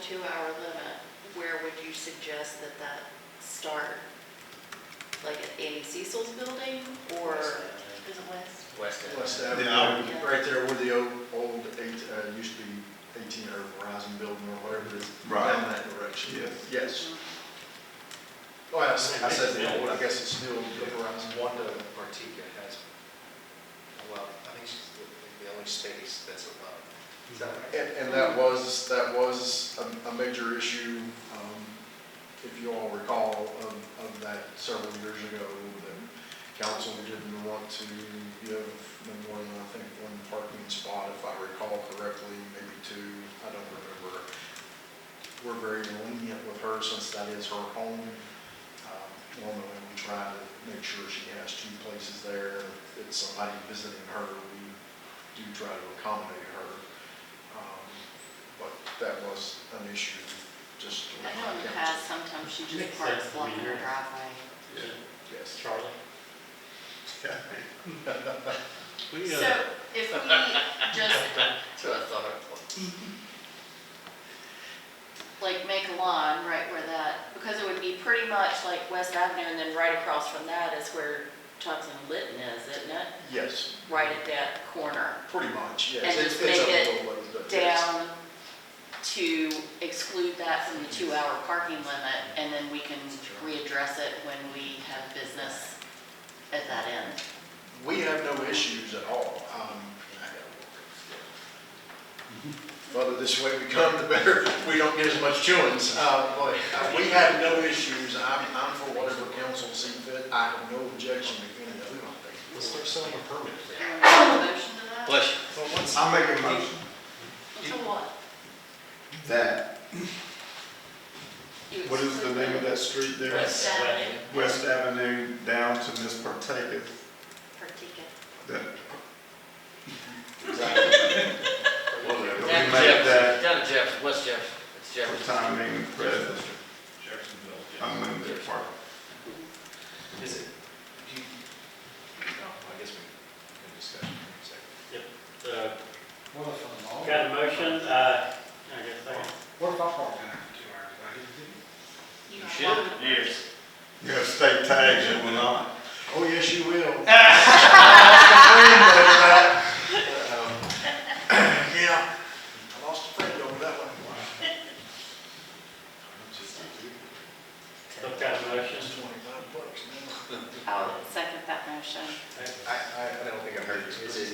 two-hour limit, where would you suggest that that start? Like at Amy Cecil's building or? West Is it west? West End. West Yeah. Avenue, right there where the old, old eight, uh, used to be eighteen or Verizon building or whatever it is. Right. Down that direction. Yes. Yes. Well, I said, I said the old, I guess it's still the Verizon. Wanda Martika has, well, I think she's the- the only space that's allowed. Is that right? And, and that was, that was a, a major issue, um, if you all recall, of, of that several years ago, that council didn't want to give no more than, I think, one parking spot, if I recall correctly, maybe two, I don't remember. We're very lenient with her since that is her home. Um, Normally, we try to make sure she has two places there. If it's somebody visiting her, we do try to accommodate her. Um, But that was an issue, just. with I know in the council. past, sometimes she just Makes parks sense to blocking me, her yeah. driveway. Yes. Charlie? We, uh, So if we just That's what I thought it was. like make a lawn right where that, because it would be pretty much like West Avenue and then right across from that is where Thompson Litton is, isn't it? Yes, Right at that corner, pretty much, yes. And It just fits up a make it little ways, but yes. down to exclude that from the two-hour parking limit, and then we can readdress it when we have business at that end. We have no issues at all. Um, Well, this way we come, the better, we don't get as much chewings. Uh, But uh, we have no issues. I'm, I'm for whatever council sees fit. I have no objection to any of it. Let's start selling a permit. Anyone have a motion to that? Bless you. I make a motion To what? that, You what is the exclude name of that street there? West Avenue. West Avenue down to Miss Partakis, For ticket. that, Exactly. whatever, we Down to Jeff, make that down to Jeff, West Jeff, it's Jeff. for time being present, unlimited parking. Is it, do you, no, I guess we can discuss it in a second. Uh, Got a motion, uh, I guess I can. What if I park in there for two hours? I Uh, just did it. You should, Yes. You have state tags, you will not. Oh, yes, you will. uh, Yeah, I lost a friend over that one. Some kind of motion. It's Twenty-five bucks, man. I would second that motion. I, I, I don't think I've heard this. Is it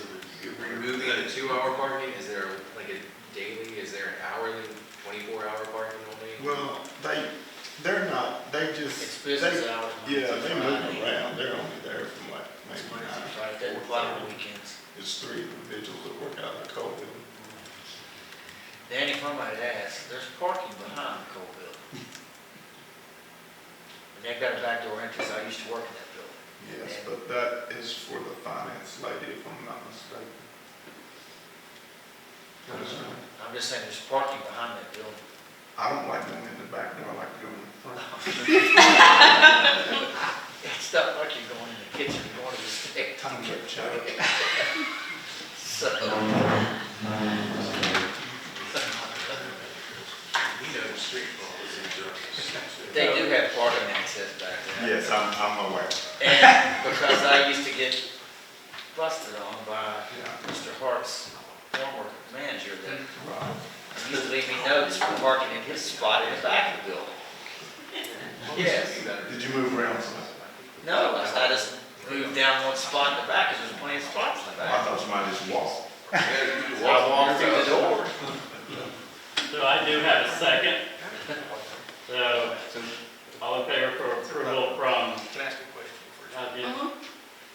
removing a two-hour parking? Is there like a daily, is there an hourly, twenty-four hour parking only? Well, they, they're not, they just, It's they, business hours. yeah, they move around, they're only there from like maybe nine. Doesn't apply on weekends. It's three individuals that work out of the coal building. Danny, if I might ask, there's parking behind the coal building. And they've got a back door entrance. I used to work in that building. Yes, but that is for the finance lady, if I'm not mistaken. That is right. I'm just saying, there's parking behind that building. I don't like going in the back door, I like going in the front. It's not like you're going in the kitchen, you're going to the state. Time check, check. So. They do have parking access back there. Yes, I'm, I'm aware. And because I used to get busted on by Yeah, Mr. Hart's former manager that right. he used to leave me notes for parking in his spot in the back of the building. Yes. Did you move around some? No, I just moved down one spot in the back, because there's plenty of spots in the I back. thought somebody just walked. So I walked through the door. So I do have a second. So, all in favor for approval from, Can I ask a question first? uh, the- Mhm.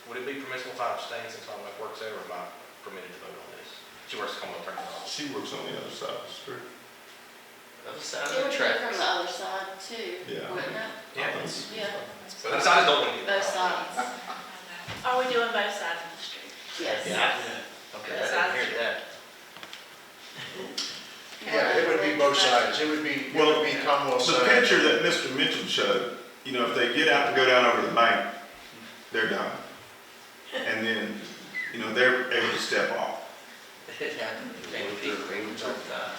Would it be permissible if I abstain since my wife works there, or am I permitted to vote on this? She works at Commonwealth Attorney's Office. She works on the other side of the street. Other It side of would the be traffic. from the other side too, Yeah. wouldn't it? I think- Yeah, But I just don't want to. both sides. Are we doing both sides of the street? Yes. Yeah. Okay, I didn't hear that. Yeah, it would be both sides. It would be, it would be Commonwealth The side. picture that Mr. Mitchell showed, you know, if they get out and go down over the bank, they're done. And then, you know, they're able to step off. It happened. It came to people all the time. uh,